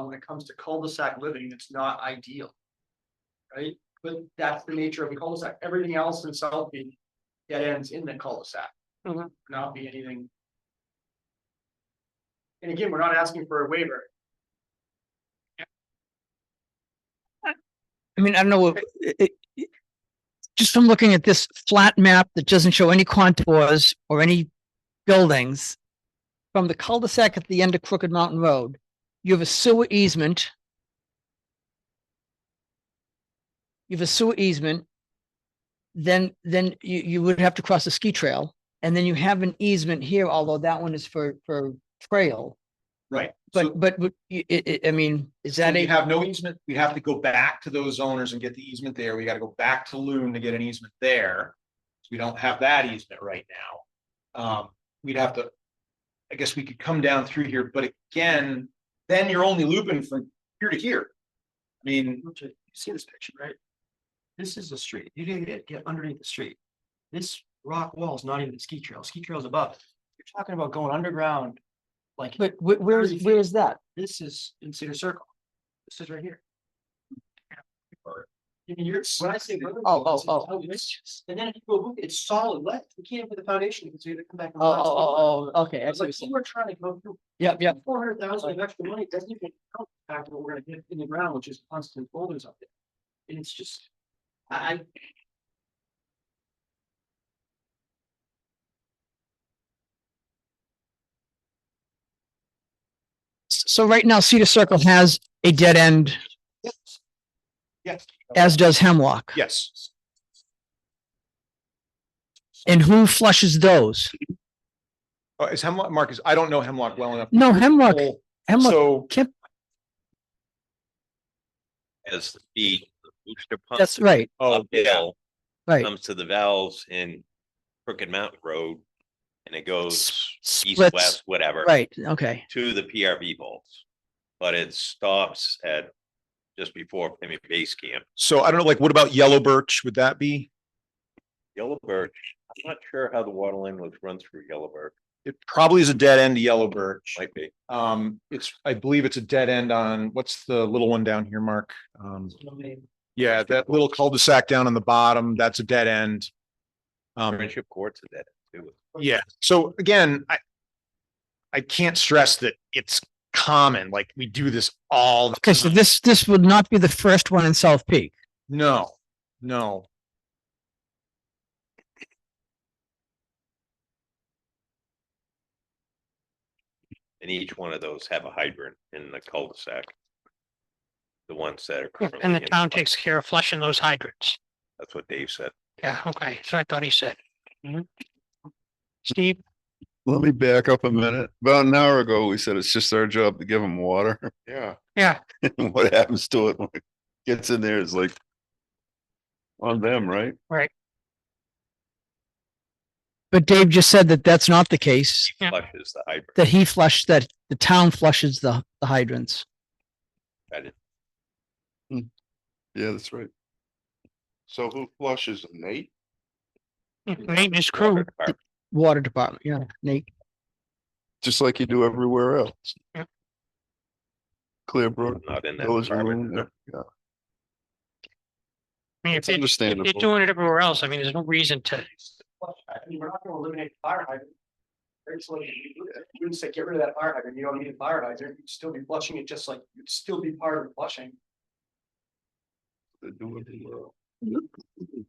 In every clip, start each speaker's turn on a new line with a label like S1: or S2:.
S1: when it comes to cul-de-sac living, it's not ideal. Right? But that's the nature of a cul-de-sac. Everything else in South Beach dead ends in the cul-de-sac.
S2: Mhm.
S1: Not be anything. And again, we're not asking for a waiver.
S2: I mean, I don't know, what- it, it- it- just from looking at this flat map that doesn't show any contours or any buildings, from the cul-de-sac at the end of Crooked Mountain Road, you have a sewer easement. You have a sewer easement. Then, then you, you would have to cross a ski trail, and then you have an easement here, although that one is for, for trail.
S3: Right.
S2: But, but, would you- it, it, I mean, is that
S3: We
S2: a,
S3: have no easement. We have to go back to those owners and get the easement there. We gotta go back to Loon to get an easement there. So We don't have that easement right now. Um, we'd have to. I guess we could come down through here, but again, then you're only looping from here to here. I mean,
S1: Richard, You see this picture, right? This is the street. You didn't get, get underneath the street. This rock wall is not even the ski trail. Ski trail's above it. You're talking about going underground. Like
S2: but wh- where is, where is that?
S1: this is in Cedar Circle. This is right here. I mean, you're, when I say. road,
S2: Oh, oh,
S1: it's-
S2: oh.
S1: it's- And then if you go, look, it's solid lead. You can't put the foundation because we have to come back. and
S2: Oh,
S1: blast it.
S2: oh, oh, oh, okay.
S1: I
S2: I
S1: was
S2: see
S1: like,
S2: what you're
S1: so
S2: saying.
S1: we're trying to go through
S2: Yep, yep.
S1: four hundred thousand of extra money, doesn't even count the fact that we're gonna get in the ground, which is constant boulders up there. And it's just, I, I-
S2: S- So right now Cedar Circle has a dead end,
S3: yes,
S2: as does Hemlock.
S3: yes.
S2: And who flushes those?
S3: Uh, Is Hemlock, Marcus, I don't know Hemlock well enough.
S2: No, Hemlock, Hemlock,
S3: So
S4: as the booster pump.
S2: that's right,
S3: Oh,
S4: uphill
S2: right.
S4: Comes to the valves in Crooked Mountain Road and it goes
S2: S-
S4: east,
S2: Splits,
S4: west, whatever.
S2: right, okay,
S4: To the PRV bolts, but it stops at just before Pemmy Base Camp.
S3: So I don't know, like, what about yellow birch? Would that be?
S4: Yellow Birch, I'm not sure how the water line was run through Yellow Birch,
S3: It probably is a dead end to yellow birch.
S4: might be.
S3: Um, it's, I believe it's a dead end on, what's the little one down here, Mark? Um,
S1: you know, they-
S3: yeah, that little cul-de-sac down on the bottom, that's a dead end. Um,
S4: Friendship Court's at that too.
S3: yeah, so again, I. I can't stress that it's common, like we do this all. the
S2: okay, so
S3: time.
S2: this, this would not be the first one in South Peak.
S3: No, no.
S4: And each one of those have a hydrant in the cul-de-sac. The ones that are.
S5: Yeah,
S4: currently
S5: And the
S4: in
S5: town
S4: play.
S5: takes care of flushing those hydrants.
S4: That's what Dave said.
S5: Yeah, okay, so I thought he said. Mhm. Steve,
S6: Let me back up a minute. About an hour ago, we said it's just our job to give them water. Yeah.
S5: Yeah.
S6: And what happens to it when it gets in there is like on them, right?
S2: But Dave just said that that's not the case,
S5: Yeah.
S4: Flushes the hydrant.
S2: that he flushed, that the town flushes the the hydrants.
S4: I didn't-
S6: Yeah, that's right. So who flushes Nate?
S5: maintenance crew,
S4: Fire
S2: Water department, yeah, Nate,
S6: Just like you do everywhere else.
S5: Yeah.
S6: Clearbrook.
S4: department, Not in that.
S6: those are
S4: department.
S6: in there. Yeah,
S5: I
S6: It's
S5: mean, if they- if they're
S6: understandable.
S5: doing it everywhere else, I mean, there's no reason to,
S1: I mean, we're not gonna eliminate the fire hydrant. Very slowly, you wouldn't say get rid of that fire hydrant, you don't need a fire hydrant, you'd still be flushing it just like, you'd still be part of the flushing.
S6: They do everywhere else.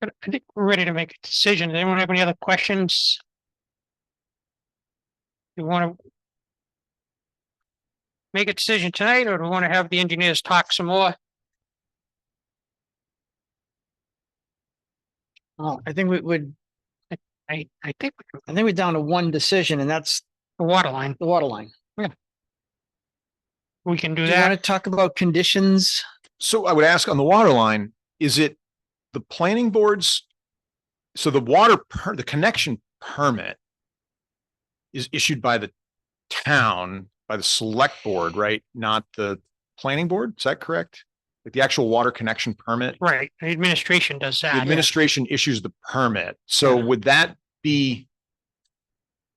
S5: but I think we're ready to make a decision. Does Anyone have any other questions? You want to make a decision tonight, or do we want to have the engineers talk some more?
S2: oh, I think we would,
S5: I, I think we
S2: I think we're down to one decision and that's
S5: the water line,
S2: the water line.
S5: we can do
S2: Do you want
S5: that.
S2: to talk about conditions?
S3: So I would ask on the water line, is it the planning boards? So the water per, the connection permit is issued by the town, by the select board, right? Not the planning board? Is that correct? Like the actual water connection permit?
S5: Right, the administration does
S3: The
S5: that.
S3: administration issues the permit. So would that be